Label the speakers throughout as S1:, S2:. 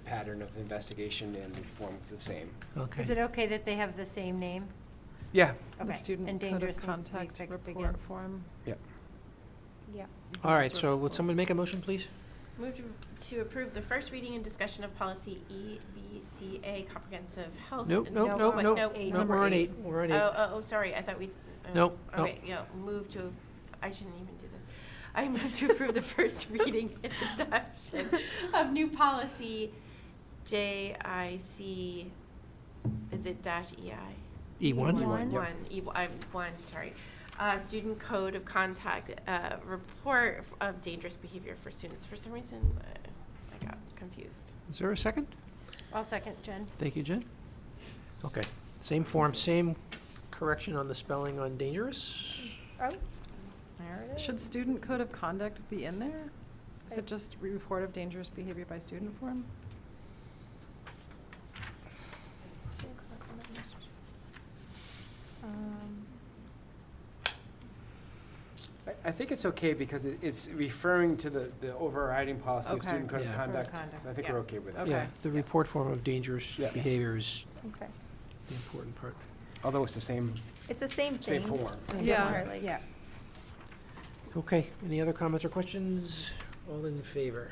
S1: pattern of investigation and form the same.
S2: Is
S3: Okay.
S2: it okay that they have the same name?
S1: Yeah,
S2: Okay,
S4: The student code
S2: endangered
S4: of
S2: needs to be
S4: contact
S2: fixed again.
S4: report form.
S1: yeah.
S5: Yep.
S3: All right, so would someone make a motion, please?
S5: Move to, to approve the first reading and discussion of policy E, EBCA, comprehensive health.
S3: Nope,
S5: Oh, and
S3: nope,
S5: so-
S3: nope,
S5: what?
S3: nope,
S5: No,
S3: nope,
S5: number
S3: we're on eight, we're on eight.
S5: Oh, oh, oh, sorry, I thought we. oh,
S3: Nope,
S5: All
S3: nope.
S5: right, yeah, move to, I shouldn't even do this. I move to approve the first reading and adoption of new policy JIC, is it dash E EI?
S3: E1?
S2: E1.
S5: One, E, I'm, one, sorry. Uh, student code of contact, uh, report of dangerous behavior for students. For some reason, uh, I got confused.
S3: Is there a second?
S2: I'll second Jen.
S3: Thank you, Jen. Okay, same form, same correction on the spelling on dangerous?
S4: Should student code of conduct be in there? Is
S2: I-
S4: it just report of dangerous behavior by student form?
S6: Um,
S1: I, I think it's okay because it, it's referring to the, the overriding policy of
S4: Okay.
S1: student code of
S3: Yeah.
S1: conduct.
S5: Conduct,
S1: I think
S5: yeah.
S1: we're okay with that.
S4: Okay.
S3: Yeah, the report form of dangerous
S1: Yeah.
S3: behavior is
S6: Okay.
S3: the important part.
S1: Although it's the same,
S6: It's the same
S1: same
S6: thing.
S1: form.
S4: Yeah.
S6: Yeah.
S3: Okay, any other comments or questions? All in favor?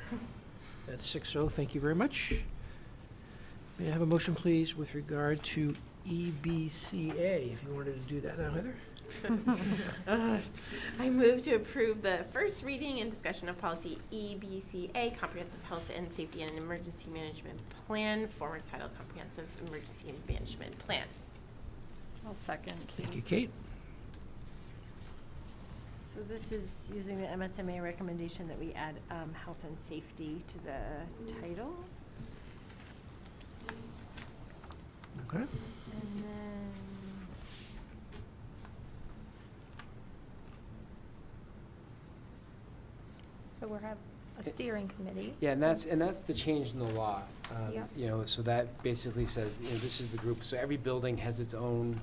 S3: That's six oh, thank you very much. May I have a motion, please, with regard to E EBCA, if you wanted to do that now, Heather?
S5: Uh, I move to approve the first reading and discussion of policy E, EBCA, Comprehensive Health and Safety and Emergency Management Plan, former title Comprehensive Emergency Management Plan.
S4: I'll second.
S3: Thank you, Kate.
S2: So this is using the MSMA recommendation that we add um, health and safety to the title.
S3: Okay.
S2: And then,
S6: So we'll have a steering committee.
S1: Yeah, and that's, and that's the change in the law. um,
S6: Yeah.
S1: You know, so that basically says, you know, this is the group, so every building has its own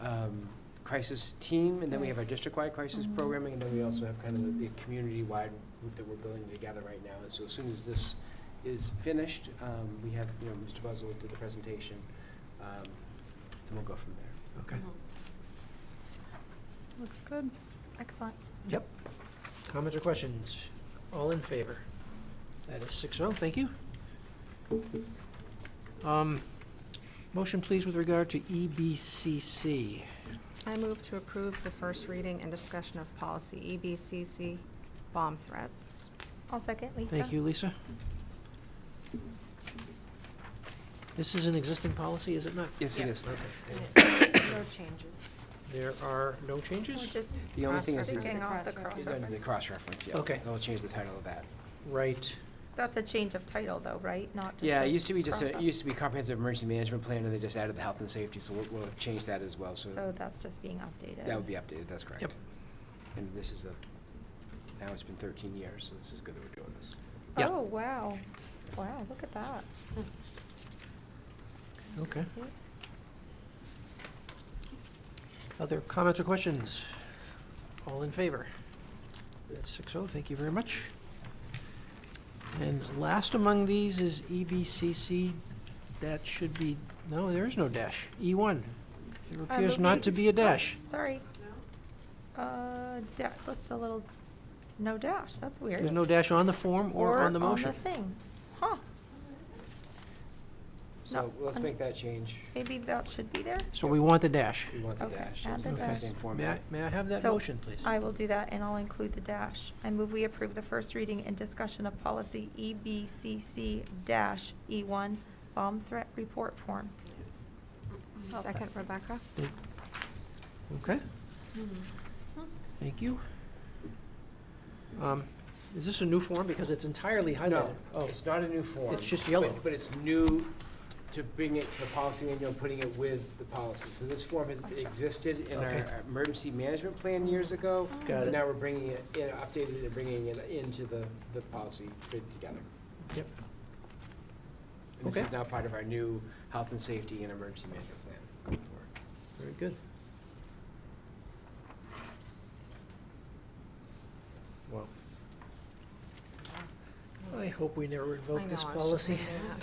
S1: um, crisis team, and then we have our district-wide crisis
S6: Mhm.
S1: programming, and then we also have kind of the- the community-wide group that we're building together right now. And so as soon as this is finished, um, we have, you know, Mr. Buzzell did the presentation, um, and we'll go from there.
S3: Okay.
S4: Looks good.
S6: Excellent.
S3: Yep. Comments or questions? All in favor? That is six oh, thank you. Um, Motion, please, with regard to E EBCC.
S7: I move to approve the first reading and discussion of policy E, EBCC bomb threats.
S6: I'll second Lisa.
S3: Thank you, Lisa. This is an existing policy, is it not?
S1: Yes, it
S5: Yeah.
S1: is. Okay.
S5: Mm-hmm.
S2: no changes.
S3: There are no
S7: We're
S3: changes?
S7: just
S1: The only thing is, is
S7: cross-referencing off the
S2: Cross-reference.
S1: is
S7: cross-reference.
S1: under the cross-reference, yeah.
S3: Okay.
S1: I'll change the title of that.
S3: Right.
S6: That's a change of title though, right? Not just
S1: Yeah,
S6: a
S1: it used to be just, a- it
S6: cross-up.
S1: used to be comprehensive emergency management plan, and they just added the health and safety, so we'll, we'll change that as well, so
S6: So that's just being updated.
S1: that would be updated, that's correct.
S3: Yep.
S1: And this is a, now it's been thirteen years, so this is good that we're doing this.
S3: Yeah.
S6: Oh, wow. Wow, look at that.
S3: Okay. Other comments or questions? All in favor? That's six oh, thank you very much. And last among these is E EBCC. That should be, no, there is no dash. E one. There
S6: I
S3: appears
S6: move
S3: not
S6: to-
S3: to be a dash.
S6: Sorry. Uh, da- just a little, no dash, that's weird.
S3: There's no dash on the form or on the motion.
S6: Or on the thing. Huh,
S1: So
S6: No,
S1: let's
S6: un-
S1: make that change,
S6: maybe that should be there?
S3: So we want the dash.
S1: we want the
S6: Okay,
S1: dash,
S6: add
S1: it's
S6: the
S1: in the
S6: dash.
S1: same
S3: May I,
S1: format.
S3: may I have that
S6: So,
S3: motion, please?
S6: I will do that, and I'll include the dash. I move we approve the first reading and discussion of policy E EBCC dash E1, bomb threat report form. I'll
S7: Second, Rebecca?
S3: Okay, thank you. Um, Is this a new form? Because it's entirely highlighted.
S1: No,
S3: Oh,
S1: it's not a new form.
S3: It's just yellow.
S1: but- But it's new to bring it to the policy manual, and putting it with the policy. So this form has
S6: Gotcha.
S1: existed in our
S3: Okay.
S1: emergency management plan years ago.
S3: Got
S1: But
S3: it.
S1: now we're bringing it, in updated and bringing it into the, the policy fit together.
S3: Yep.
S1: And this is
S3: Okay.
S1: now part of our new health and safety and emergency management plan going forward.
S3: Very good. Well, I hope we never
S7: I
S3: invoke
S7: know,
S3: this
S7: I was just
S3: policy.
S7: thinking that.